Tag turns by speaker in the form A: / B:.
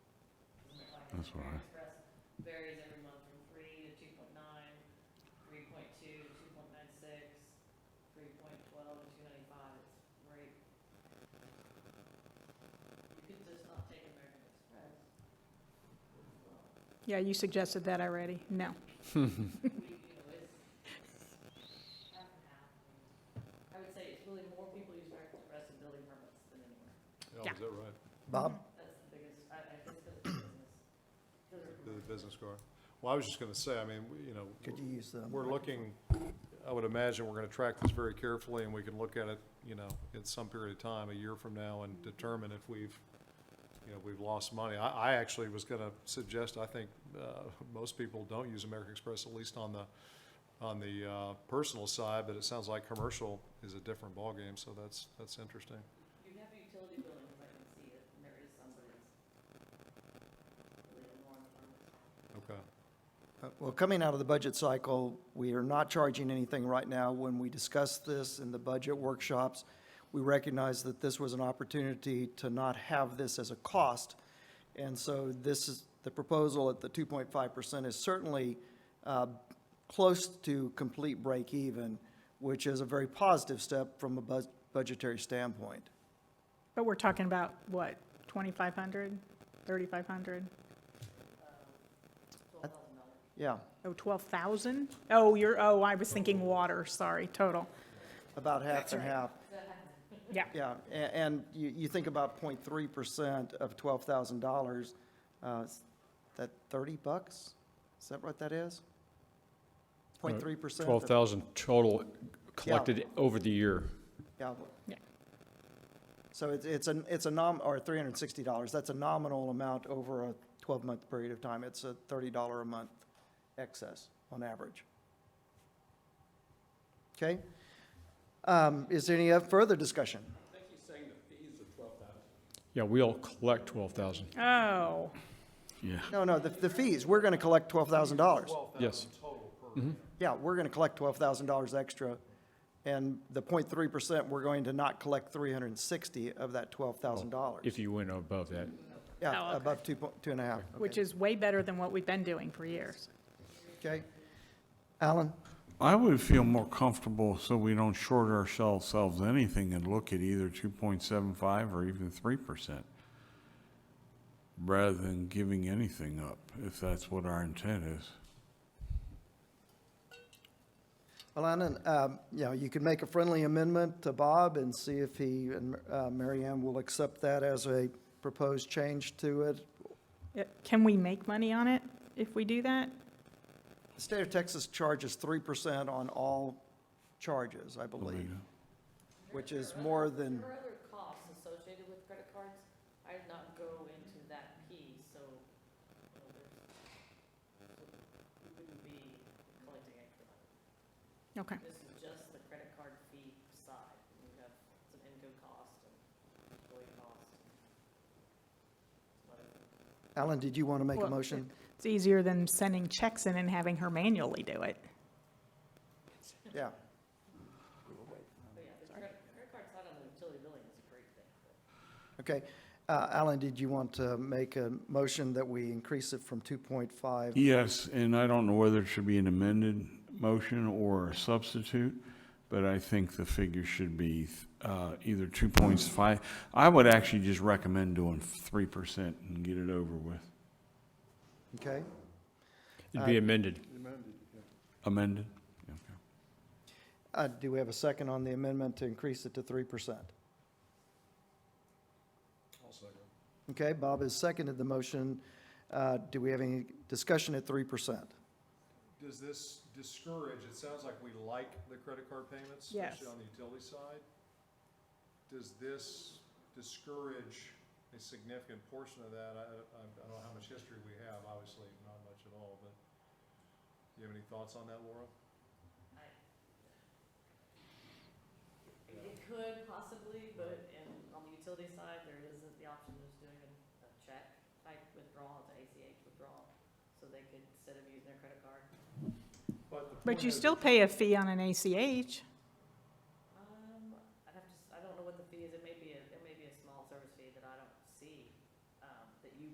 A: That's all
B: Grand
A: right.
B: Express varies every month from three to two point nine, three point two to two point nine six, three point twelve to two ninety-five, it's great. You could just not take American Express.
C: Yeah, you suggested that already. No.
B: We, you know, it's half and half. I would say it's really more people use American Express and building permits than anywhere.
D: Oh,
C: Yeah.
D: is that right?
E: Bob?
B: That's the biggest, I, I just, because it's business. Those are
D: The business card? Well, I was just going to say, I mean, we- you know,
E: Could you use the?
D: we're looking, I would imagine we're going to track this very carefully, and we can look at it, you know, at some period of time, a year from now, and determine if we've, you know, we've lost money. I, I actually was going to suggest, I think, uh, most people don't use American Express, at least on the, on the uh, personal side, but it sounds like commercial is a different ballgame, so that's, that's interesting.
B: You have a utility billing, I can see it, and there is somebody's. Really alarmed on this.
D: Okay.
E: Uh, Well, coming out of the budget cycle, we are not charging anything right now. When we discussed this in the budget workshops, we recognized that this was an opportunity to not have this as a cost. And so this is, the proposal at the 2.5% is certainly uh, close to complete break even, which is a very positive step from a bus- budgetary standpoint.
C: But we're talking about, what, 2,500, 3,500?
E: Yeah,
C: Oh, 12,000? Oh, you're, oh, I was thinking water, sorry, total.
E: about half and half.
C: Yeah,
E: Yeah, a- and you, you think about 0.3% of $12,000, uh, is that 30 bucks? Is that what that is? 0.3%?
F: 12,000 total collected over the year.
E: Yeah.
C: Yeah.
E: So it's, it's an, it's a nom, or $360, that's a nominal amount over a 12-month period of time. It's a $30 a month excess on average. Okay? Um, Is there any further discussion?
F: Yeah, we'll collect 12,000.
C: oh,
A: Yeah.
E: No, no, the, the fees, we're going to collect $12,000.
F: Yes. Mm-hmm.
E: Yeah, we're going to collect twelve thousand dollars extra, and the 0.3 percent, we're going to not collect three hundred and sixty of that twelve thousand dollars.
F: Oh, If you went above that.
C: Oh,
E: Yeah,
C: okay.
E: above two, po- two and a half.
C: which
E: Okay.
C: is way better than what we've been doing for years.
E: Okay. Alan,
A: I would feel more comfortable so we don't short ourselves anything and look at either 2.75 or even 3%, rather than giving anything up, if that's what our intent is.
E: Alan, um, you know, you could make a friendly amendment to Bob and see if he and, uh, Mary Ann will accept that as a proposed change to it.
C: Yeah, Can we make money on it if we do that?
E: The state of Texas charges three percent on all charges, I believe, which is more than,
B: There are other costs associated with credit cards. I did not go into that piece, so, you know, there's, so we wouldn't be collecting extra money.
C: Okay,
B: This is just the credit card fee side. We have some in-go cost and employee cost. and some other
E: Alan, did you want to make a
C: Well,
E: motion?
C: it's easier than sending checks in and having her manually do it.
E: Yeah.
B: But yeah, the credit, credit card side on the utility billing is a great thing, but
E: Okay. Uh, Alan, did you want to make a motion that we increase it from 2.5?
A: Yes, and I don't know whether it should be an amended motion or a substitute, but I think the figure should be uh, either 2.5. I would actually just recommend doing 3% and get it over with.
E: Okay?
F: It'd be amended.
A: Amended? Okay.
E: Uh, Do we have a second on the amendment to increase it to 3%? Okay, Bob has seconded the motion. Uh, Do we have any discussion at 3%?
D: Does this discourage, it sounds like we like the credit card payments,
C: Yes.
D: especially on the utility side. Does this discourage a significant portion of that? I, I I don't know how much history we have, obviously, not much at all, but do you have any thoughts on that, Laura?
B: It could possibly, but in, on the utility side, there isn't the option of just doing a, a check type withdrawal, it's an ACH withdrawal. So they could, instead of using their credit card,
D: But the
C: But you still pay a fee on an ACH.
B: Um, um,